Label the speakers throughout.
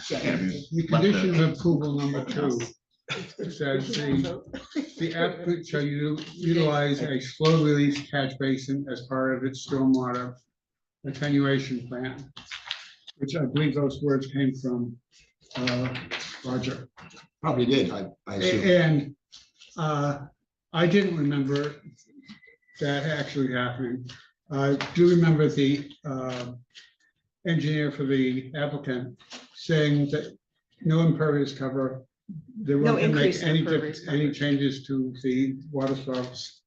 Speaker 1: Second.
Speaker 2: Your
Speaker 1: Let the-
Speaker 2: condition of approval number two says the, the applicant shall u- utilize a slow release catch basin as part of its stormwater attenuation plan, which I believe those words came from, uh, Roger.
Speaker 3: Probably did, I, I assume.
Speaker 2: And, uh, I didn't remember that actually happening. I do remember the, uh, engineer for the applicant saying that no impervious cover. They
Speaker 4: No
Speaker 2: weren't gonna
Speaker 4: increase
Speaker 2: make
Speaker 4: in
Speaker 2: any,
Speaker 4: impervious
Speaker 2: diff- any
Speaker 4: coverage.
Speaker 2: changes to the water source.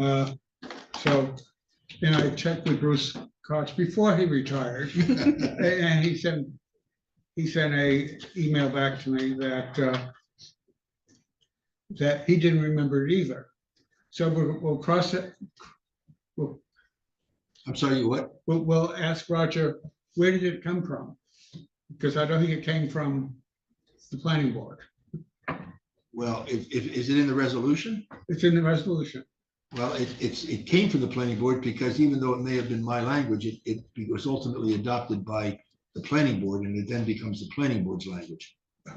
Speaker 2: Uh, so, and I checked with Bruce Cox before he retired. A- And he sent, he sent a email back to me that, uh, that he didn't remember it either. So we'll, we'll cross it, we'll,
Speaker 3: I'm sorry, what?
Speaker 2: we'll, we'll ask Roger, where did it come from? Because I don't think it came from the planning board.
Speaker 3: Well, if, if, is it in the resolution?
Speaker 2: It's in the resolution.
Speaker 3: Well, it, it's, it came from the planning board because even though it may have been my language, it, it was ultimately adopted by the planning board and it then becomes the planning board's language. Eh,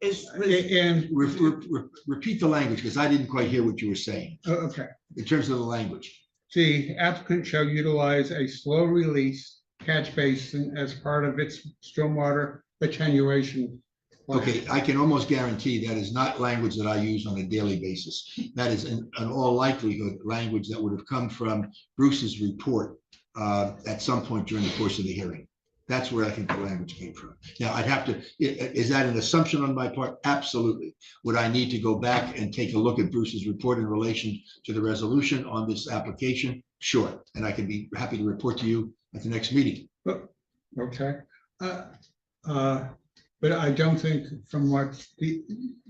Speaker 4: Is, was-
Speaker 2: A- And,
Speaker 3: Re- re- re- Repeat the language because I didn't quite hear what you were saying
Speaker 2: oh, okay,
Speaker 3: in terms of the language.
Speaker 2: the applicant shall utilize a slow release catch basin as part of its stormwater attenuation. plan.
Speaker 3: Okay, I can almost guarantee that is not language that I use on a daily basis. That is in, in all likelihood, language that would have come from Bruce's report uh, at some point during the course of the hearing. That's where I think the language came from. Now, I'd have to, i- i- is that an assumption on my part? Absolutely. Would I need to go back and take a look at Bruce's report in relation to the resolution on this application? Sure, and I can be happy to report to you at the next meeting.
Speaker 2: Okay, uh, uh, but I don't think from what the,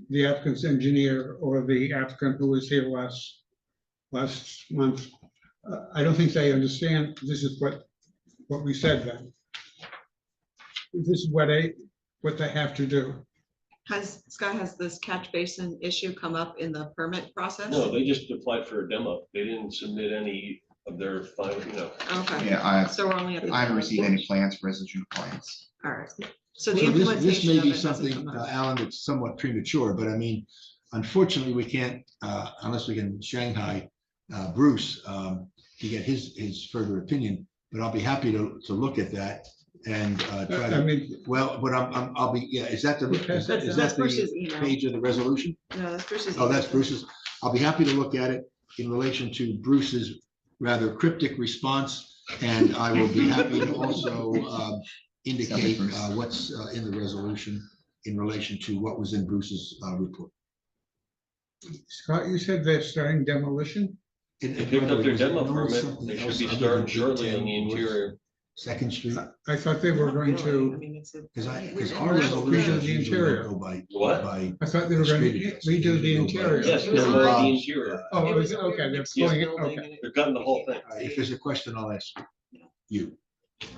Speaker 2: the applicant's engineer or the applicant who was here last, last month, uh, I don't think they understand, this is what, what we said then. This is what they, what they have to do.
Speaker 4: has, Scott, has this catch basin issue come up in the permit process?
Speaker 5: No, they just applied for a demo. They didn't submit any of their final, you know,
Speaker 4: Okay,
Speaker 1: Yeah, I,
Speaker 4: so we're only at the.
Speaker 1: I haven't received any plans, residential plans.
Speaker 4: All right, so
Speaker 3: So
Speaker 4: the
Speaker 3: this, this
Speaker 4: implementation
Speaker 3: may
Speaker 4: of
Speaker 3: be
Speaker 4: it hasn't
Speaker 3: something,
Speaker 4: come
Speaker 3: uh,
Speaker 4: up.
Speaker 3: Alan, that's somewhat premature, but I mean, unfortunately, we can't, uh, unless we can Shanghai uh, Bruce um, to get his, his further opinion, but I'll be happy to, to look at that and uh,
Speaker 2: I
Speaker 3: try
Speaker 2: I
Speaker 3: to,
Speaker 2: mean,
Speaker 3: well, but I'm, I'm, I'll be, yeah, is that the, is that-
Speaker 4: That's
Speaker 3: is
Speaker 4: that's uh,
Speaker 3: that the
Speaker 4: Bruce's email.
Speaker 3: page of the resolution?
Speaker 4: No, that's Bruce's.
Speaker 3: Oh, that's
Speaker 4: email.
Speaker 3: Bruce's. I'll be happy to look at it in relation to Bruce's rather cryptic response. And I will be happy to also um, indicate
Speaker 1: Bruce.
Speaker 3: uh, what's uh, in the resolution in relation to what was in Bruce's uh, report.
Speaker 2: Scott, you said they're starting demolition?
Speaker 3: In-
Speaker 5: they
Speaker 3: in
Speaker 5: picked up
Speaker 3: other
Speaker 5: their
Speaker 3: words,
Speaker 5: demo
Speaker 3: no
Speaker 5: permit.
Speaker 3: something
Speaker 5: They
Speaker 3: else
Speaker 5: should be
Speaker 3: other
Speaker 5: starting
Speaker 3: than
Speaker 5: shortly on the
Speaker 3: 10 North
Speaker 5: interior.
Speaker 3: Second Street,
Speaker 2: I thought they were
Speaker 4: Not
Speaker 2: going
Speaker 4: really. I
Speaker 2: to,
Speaker 4: mean, it's a-
Speaker 3: because I, because
Speaker 4: We're-
Speaker 3: our
Speaker 4: we're-
Speaker 3: resolutions
Speaker 2: The
Speaker 3: usually
Speaker 2: interior.
Speaker 3: don't go by,
Speaker 5: What?
Speaker 3: by,
Speaker 2: I thought they were going to redo the interior.
Speaker 5: Yes,
Speaker 4: Yeah.
Speaker 5: they're on the interior.
Speaker 2: Oh, it
Speaker 4: It
Speaker 2: was,
Speaker 4: a
Speaker 2: okay,
Speaker 4: weird
Speaker 2: they're
Speaker 4: mixed use
Speaker 2: pulling it,
Speaker 4: building
Speaker 2: okay.
Speaker 4: and it-
Speaker 5: They're gutting the whole thing.
Speaker 3: uh, if there's a question, I'll ask you.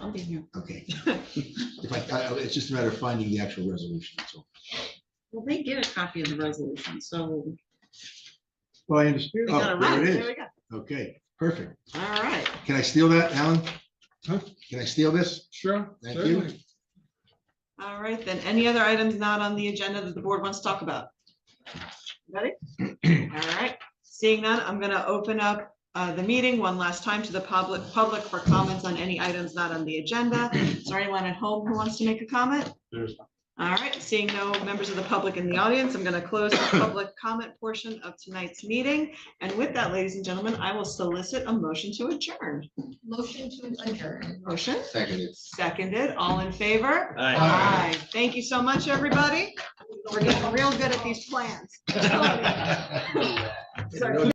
Speaker 4: I'll be here.
Speaker 3: Okay. If I, I- it's just a matter of finding the actual resolution, that's all.
Speaker 4: Well, they get a copy of the resolution, so
Speaker 3: Well, I understand.
Speaker 4: we got
Speaker 3: Oh,
Speaker 4: a
Speaker 3: there
Speaker 4: run.
Speaker 3: it
Speaker 4: There we
Speaker 3: is.
Speaker 4: go.
Speaker 3: Okay, perfect.
Speaker 4: All right.
Speaker 3: Can I steal that, Alan?
Speaker 2: Huh?
Speaker 3: Can I steal this?
Speaker 2: Sure.
Speaker 3: Thank you.
Speaker 2: certainly.
Speaker 4: All right, then. Any other items not on the agenda that the board wants to talk about? Ready? All right, seeing none, I'm gonna open up uh, the meeting one last time to the public, public for comments on any items not on the agenda. Is there anyone at home who wants to make a comment? All right, seeing no members of the public in the audience, I'm gonna close the public comment portion of tonight's meeting. And with that, ladies and gentlemen, I will solicit a motion to adjourn.
Speaker 6: Motion to adjourn.
Speaker 4: Motion
Speaker 1: Seconded.
Speaker 4: seconded, all in favor?
Speaker 5: Aye.
Speaker 3: Aye.
Speaker 4: Aye. Thank you so much, everybody. We're getting real good at these plans. Sorry.